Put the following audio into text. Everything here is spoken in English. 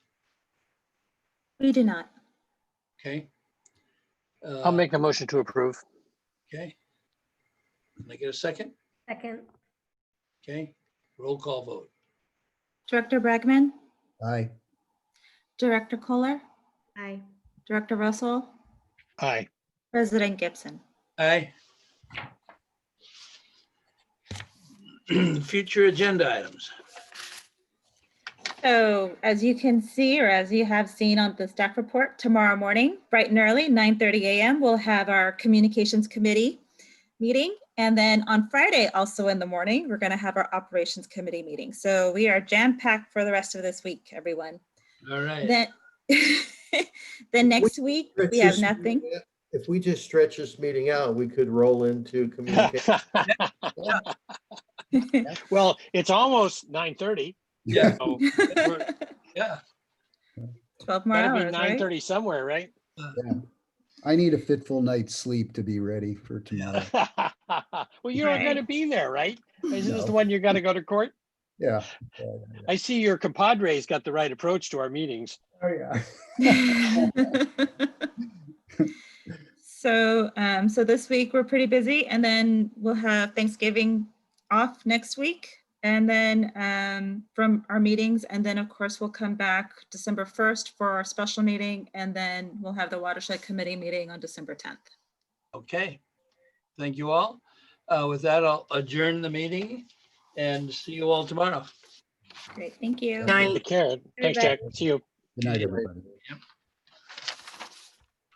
We do not. Okay. Uh, I'll make a motion to approve. Okay. Can I get a second? Second, Okay, roll call vote. Director Bragman, Aye. Director Kohler, aye. Director Russell, Aye. President Gibson. Aye. Future agenda items. So as you can see, or as you have seen on the staff report, tomorrow morning, bright and early, 9:30 a.m., we'll have our Communications Committee meeting. And then on Friday, also in the morning, we're going to have our Operations Committee meeting. So we are jam-packed for the rest of this week, everyone. All right. Then, then next week, we have Stretch this nothing. meeting out- If we just stretch this meeting out, we could roll into communication. Well, it's almost nine thirty. Yeah, Twelve yeah. more Gotta be hours, nine right? thirty somewhere, right? I need a fitful night's sleep to be ready for tomorrow. Well, you're not Right. gonna be there, right? Isn't this the No. one you gotta go to court? Yeah. I see your compadre's got the right approach to our meetings. Oh, yeah. So, um, so this week we're pretty busy and then we'll have Thanksgiving off next week. And then, um, from our meetings, and then of course we'll come back December first for our special meeting. And then we'll have the watershed committee meeting on December tenth. Okay. Thank you all. Uh, With that, I'll adjourn the meeting and see you all tomorrow. Great, thank you. Nice. Take care. Thanks, Jack. See you. Good night, everybody.